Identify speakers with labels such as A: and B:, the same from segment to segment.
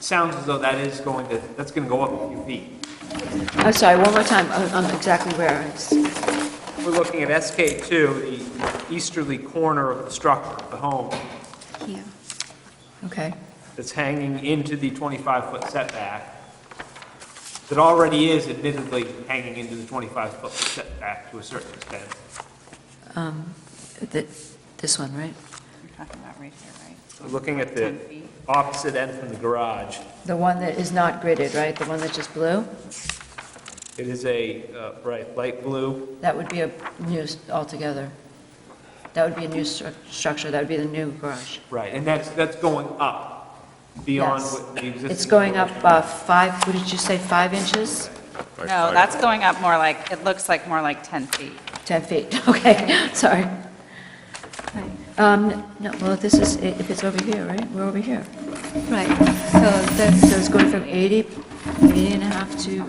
A: sounds as though that is going to, that's going to go up a few feet.
B: I'm sorry, one more time, on- on exactly where it's,
A: We're looking at SK2, the easterly corner of the structure, of the home,
B: here. Okay,
A: that's hanging into the 25-foot setback, that already is admittedly hanging into the 25-foot setback to a certain extent.
B: Th- this one, right?
C: You're talking about right here, right?
A: We're Looking at the
C: 10 feet.
A: opposite end from the garage,
B: The one that is not gridded, right? The one that's just blue?
A: it is a, uh, right, light blue,
B: That would be a new, s- altogether. That would be a new stru- structure, that would be the new garage.
A: right, and that's, that's going up beyond
B: Yes.
A: what the existing.
B: It's going up uh, five, what did you say, five inches?
C: No, that's going up more like, it looks like more like 10 feet.
B: 10 feet, okay, sorry. Um, No, well, this is, if it's over here, right? We're over here.
D: Right, so that's,
B: So it's going from 80, 80 and a half to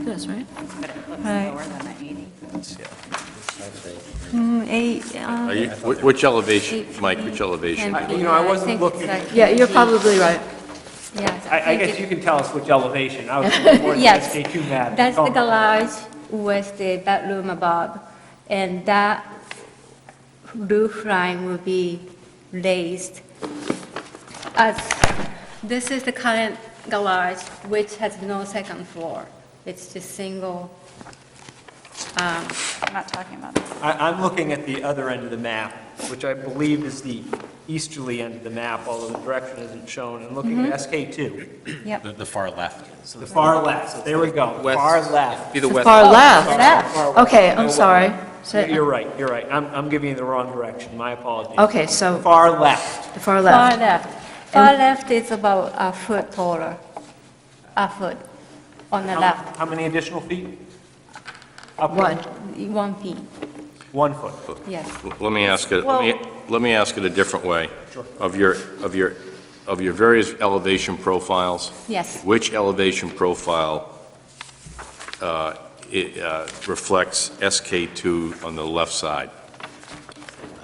B: this, right?
C: But it looks
D: Right.
C: lower than the 80.
D: mm, eight, uh,
E: Are you- wh- Which elevation,
D: eight
E: Mike,
D: feet,
E: which elevation?
D: 10
A: I- you
D: feet.
A: know, I
D: Yeah,
A: wasn't
D: think
A: looking-
D: it's like
B: Yeah, you're
D: 10 feet.
B: probably right.
D: Yes.
A: I, I
D: think
A: guess
D: it-
A: you can tell us which elevation, I was looking more at
D: Yes.
A: the SK2 map.
D: That's
A: Oh,
D: the garage with the bedroom above, and that roof line will be raised. As, this is the current garage, which has no second floor. It's just single, um,
C: I'm not talking about this.
A: I, I'm looking at the other end of the map, which I believe is the easterly end of the map, although the direction isn't shown, and looking at SK2,
C: Yep,
F: The, the far left.
A: the far left, so there we go,
E: West.
A: far left.
E: Be the
B: The
E: west.
B: far
A: Far-
B: left.
A: far west.
B: Okay, I'm sorry.
A: You're
B: So-
A: you're right, you're right, I'm, I'm giving you the wrong direction, my apologies.
B: Okay, so
A: Far left,
B: the far
D: far
B: left.
D: left. Far left is about a foot taller, a foot on the
A: how
D: left,
A: how many additional feet? Up
B: One.
D: one feet,
A: One foot.
D: yes.
E: L- Let me ask it, let me, let me ask it a different way.
A: Sure.
E: Of your, of your, of your various elevation profiles,
D: Yes,
E: which elevation profile uh, it, uh, reflects SK2 on the left side?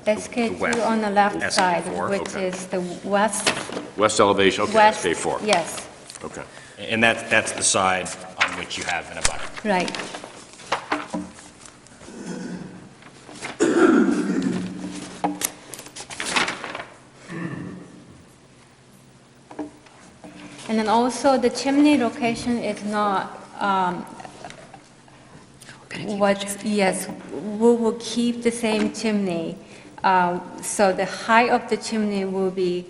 E: west.
D: SK2 on the left side,
E: SK4,
D: which
E: okay.
D: is the west,
E: West elevation, okay,
D: west.
E: SK4.
D: Yes,
E: Okay.
F: And that, that's the side on which you have an abutment.
D: right. And then also, the chimney location is not um, What, yes, we will keep the same chimney. uh, So the height of the chimney will be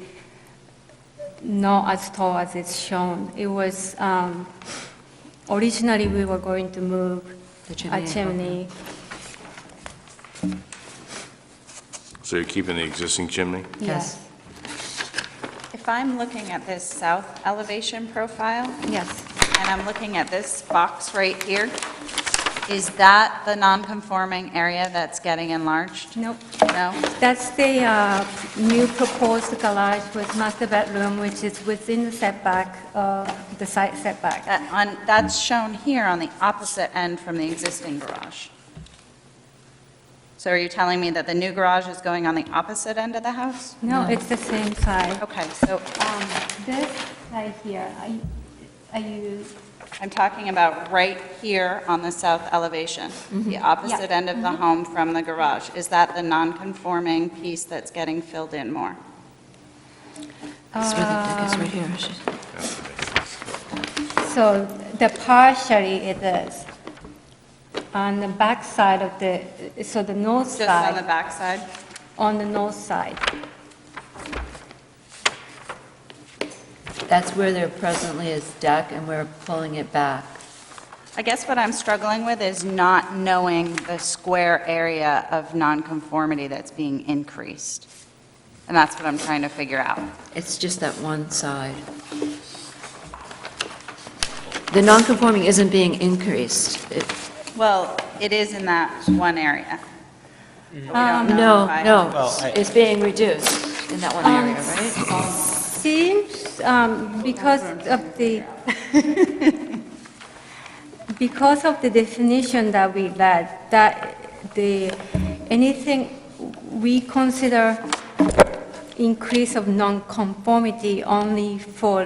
D: not as tall as it's shown. It was, um, originally, we were going to move
B: The
D: a
B: chimney.
D: chimney.
E: So you're keeping the existing chimney?
D: Yes,
C: if I'm looking at this south elevation profile,
D: yes.
C: and I'm looking at this box right here, is that the non-conforming area that's getting enlarged?
D: Nope,
C: No?
D: that's the uh, new proposed garage with master bedroom, which is within the setback, uh, the side setback.
C: That- on- That's shown here on the opposite end from the existing garage. So are you telling me that the new garage is going on the opposite end of the house?
D: No, it's the same size.
C: Okay, so
D: Um, This right here, are you,
C: I'm talking about right here on the south elevation, the opposite end of the home from the garage. Is that the non-conforming piece that's getting filled in more?
B: It's where the deck is, right here. She's-
D: so the partially it is on the back side of the, so the north
C: Just on the
D: side,
C: backside?
D: on the north side.
B: That's where there presently is deck, and we're pulling it back.
C: I guess what I'm struggling with is not knowing the square area of nonconformity that's being increased. And that's what I'm trying to figure out.
B: It's just that one side. The non-conforming isn't being increased. It-
C: Well, it is in that one area. But we don't know
B: Um, No,
C: if I-
B: no, it's being reduced in that one area, right?
D: Seems, um, because of the, because of the definition that we read, that the, anything we consider increase of nonconformity only for